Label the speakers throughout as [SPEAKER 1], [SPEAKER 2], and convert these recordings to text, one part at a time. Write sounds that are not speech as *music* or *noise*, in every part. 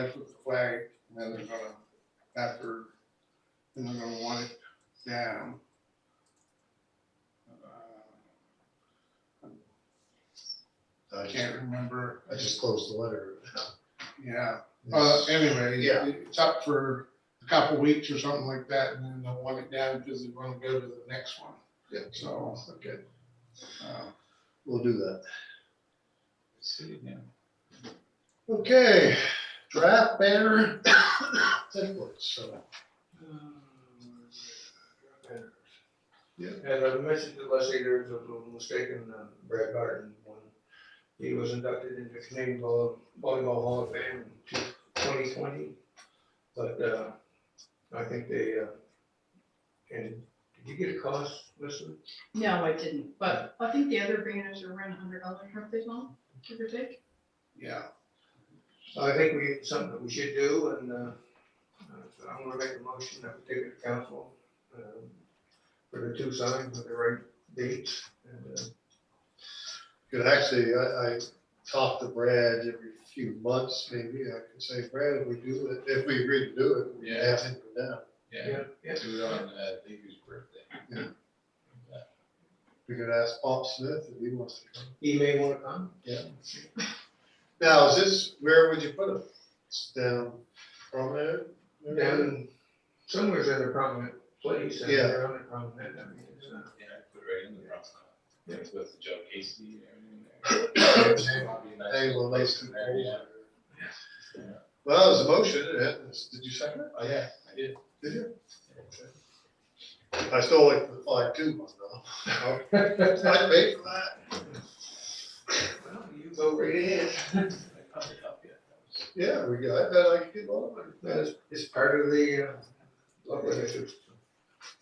[SPEAKER 1] place with the flag, and then they're gonna, after, then they're gonna want it down. Uh, I can't remember,
[SPEAKER 2] I just closed the letter.
[SPEAKER 1] yeah, uh, anyway,
[SPEAKER 2] Yeah.
[SPEAKER 1] it's up for a couple weeks or something like that, and then they'll want it down because they're gonna go to the next one,
[SPEAKER 2] Yeah,
[SPEAKER 1] so,
[SPEAKER 2] okay,
[SPEAKER 1] uh,
[SPEAKER 2] we'll do that.
[SPEAKER 3] See, yeah.
[SPEAKER 2] Okay, draft banner,
[SPEAKER 1] *coughs*
[SPEAKER 2] templates, so.
[SPEAKER 4] As I mentioned it last year, if I'm mistaken, uh, Brad Barton, when he was inducted into Canadian Vol- Volleyball Hall of Fame in twenty twenty. But, uh, I think they, uh, and did you get a cost, listen?
[SPEAKER 5] No, I didn't, but I think the other banners are around a hundred dollars, aren't they, Tom? Give or take?
[SPEAKER 1] yeah.
[SPEAKER 4] I think we, something that we should do, and, uh, uh, so I'm gonna make a motion that we take it to council, um, for the two signs with the right dates, and, uh,
[SPEAKER 2] Good, actually, I, I talk to Brad every few months, maybe, I can say, Brad, if we do it, if we agree to do it, we can have him go down.
[SPEAKER 3] Yeah,
[SPEAKER 4] yeah.
[SPEAKER 3] do it on, uh, Levy's birthday.
[SPEAKER 2] We could ask Bob Smith if he wants to come.
[SPEAKER 4] He may wanna come.
[SPEAKER 2] Now, is this, where would you put it? It's down prominent? maybe?
[SPEAKER 4] down in, somewhere's at a prominent place, and
[SPEAKER 2] Yeah.
[SPEAKER 4] around a prominent, I mean, it's not.
[SPEAKER 3] Yeah, I put it right in the Bronx.
[SPEAKER 4] Yeah.
[SPEAKER 3] It's with Joe Casey and everything there. Might be
[SPEAKER 2] *coughs*
[SPEAKER 3] a nice
[SPEAKER 2] Angle, nice
[SPEAKER 3] place in
[SPEAKER 2] and
[SPEAKER 3] there, yeah.
[SPEAKER 2] old. Well, that was a motion, eh? did you second it?
[SPEAKER 3] Oh, yeah, I did.
[SPEAKER 2] Did you? I still like the five two one though. *laughs* I paid for that.
[SPEAKER 4] *laughs* Well, you go right ahead.
[SPEAKER 3] I covered it up yet. That was-
[SPEAKER 2] Yeah, we got, I bet I could get one.
[SPEAKER 4] That is, it's part of the, uh, local issues.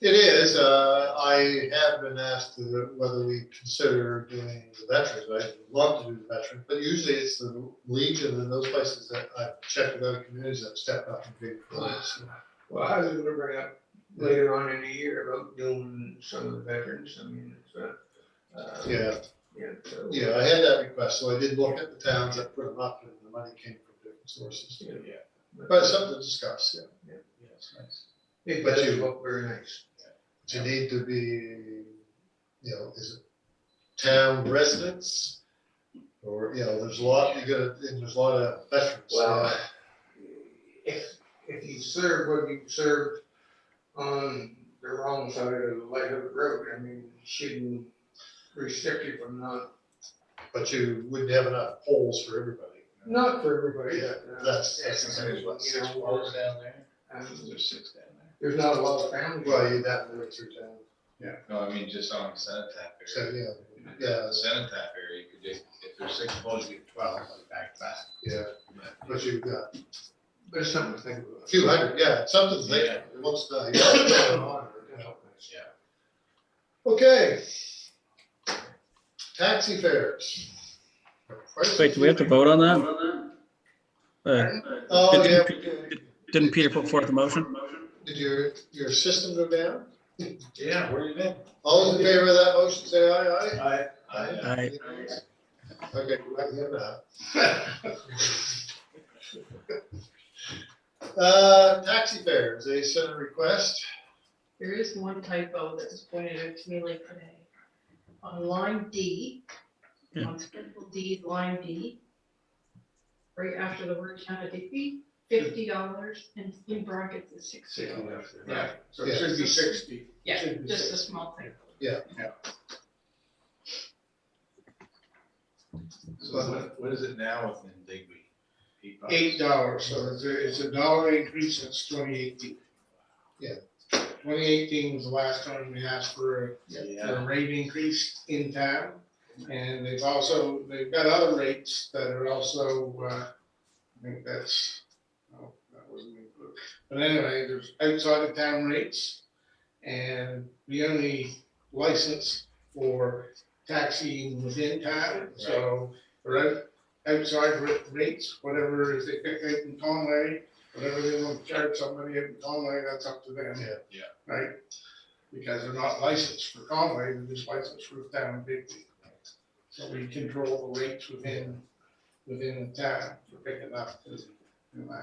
[SPEAKER 2] It is, uh, I have been asked to- whether we consider doing the veterans, I'd love to do the veterans, but usually it's the Legion and those places that I've checked with other communities that step up and big.
[SPEAKER 4] Well, I was gonna bring up later on in the year about doing some of the veterans, I mean, it's, uh, uh,
[SPEAKER 2] Yeah,
[SPEAKER 4] yeah, so.
[SPEAKER 2] yeah, I had that request, so I did look at the towns that put them up and the money came from different sources.
[SPEAKER 4] Yeah.
[SPEAKER 3] Yeah,
[SPEAKER 2] But it's something to discuss, yeah.
[SPEAKER 3] yeah, it's nice.
[SPEAKER 4] It
[SPEAKER 2] But
[SPEAKER 4] does
[SPEAKER 2] you-
[SPEAKER 4] look very nice.
[SPEAKER 2] Do you need to be, you know, is it town residents? Or, you know, there's a lot, you gotta, and there's a lot of veterans.
[SPEAKER 4] Well, if, if you serve what you served on the wrong side of the light of the road, I mean, shouldn't restrict you from not,
[SPEAKER 2] But you wouldn't have enough polls for everybody.
[SPEAKER 4] not for everybody.
[SPEAKER 2] Yeah,
[SPEAKER 4] but, uh,
[SPEAKER 2] that's- that's the same as what
[SPEAKER 4] You know,
[SPEAKER 3] Four down there,
[SPEAKER 4] um,
[SPEAKER 3] there's six down there.
[SPEAKER 4] There's not a lot of families.
[SPEAKER 2] Well, you'd have to look through town,
[SPEAKER 3] No, I mean, just on the cenotaph
[SPEAKER 2] so,
[SPEAKER 3] area.
[SPEAKER 2] yeah, yeah,
[SPEAKER 3] The cenotaph area, you could just, if there's six poles, you get twelve, like back to back.
[SPEAKER 2] yeah, but you've got
[SPEAKER 4] But it's something to think about.
[SPEAKER 2] two hundred, yeah, it's something to think,
[SPEAKER 3] Yeah.
[SPEAKER 2] about. it looks
[SPEAKER 4] It's a
[SPEAKER 2] nice.
[SPEAKER 4] lot, it does help us.
[SPEAKER 3] Yeah.
[SPEAKER 2] Okay. Taxi fares.
[SPEAKER 6] Wait, do we have to vote on that? Uh,
[SPEAKER 2] Oh, yeah, we did.
[SPEAKER 6] Didn't Peter put forth a motion?
[SPEAKER 2] did your, your system go down?
[SPEAKER 3] Yeah, where you been?
[SPEAKER 2] All those in favor of that motion, say aye, aye.
[SPEAKER 3] I, uh,
[SPEAKER 6] I,
[SPEAKER 2] Okay, we got him now. *laughs* Uh, taxi fares, they sent a request,
[SPEAKER 5] There is one typo that was pointed out to me late today. On line D,
[SPEAKER 6] Yeah.
[SPEAKER 5] on schedule D, line D, right after the word town of Digby, fifty dollars and in brackets is six.
[SPEAKER 4] Sitting
[SPEAKER 5] dollars.
[SPEAKER 4] there.
[SPEAKER 1] Yeah, so it
[SPEAKER 2] Yeah.
[SPEAKER 1] should be sixty.
[SPEAKER 5] Yeah,
[SPEAKER 1] Should be
[SPEAKER 5] just a
[SPEAKER 1] 60.
[SPEAKER 5] small typo.
[SPEAKER 3] so what, what is it now within Digby? Eight bucks?
[SPEAKER 1] eight dollars, so it's a, it's a dollar increase since twenty eighteen.
[SPEAKER 2] Yeah.
[SPEAKER 1] Twenty eighteen was the last time we asked for a, for
[SPEAKER 3] Yeah,
[SPEAKER 1] a uh, rate increase in town. And they've also, they've got other rates that are also, uh, I think that's, oh, that wasn't included. But anyway, there's outside of town rates. And the only license for taxiing within town, so for out, outside ra- rates, whatever, if they pick out in Conway, whatever they want to charge somebody in Conway, that's up to them.
[SPEAKER 2] Yeah.
[SPEAKER 3] Yeah.
[SPEAKER 1] Right? Because they're not licensed for Conway, they're just licensed for the town of Bigby. So we control the rates within, within the town for picking up, you know,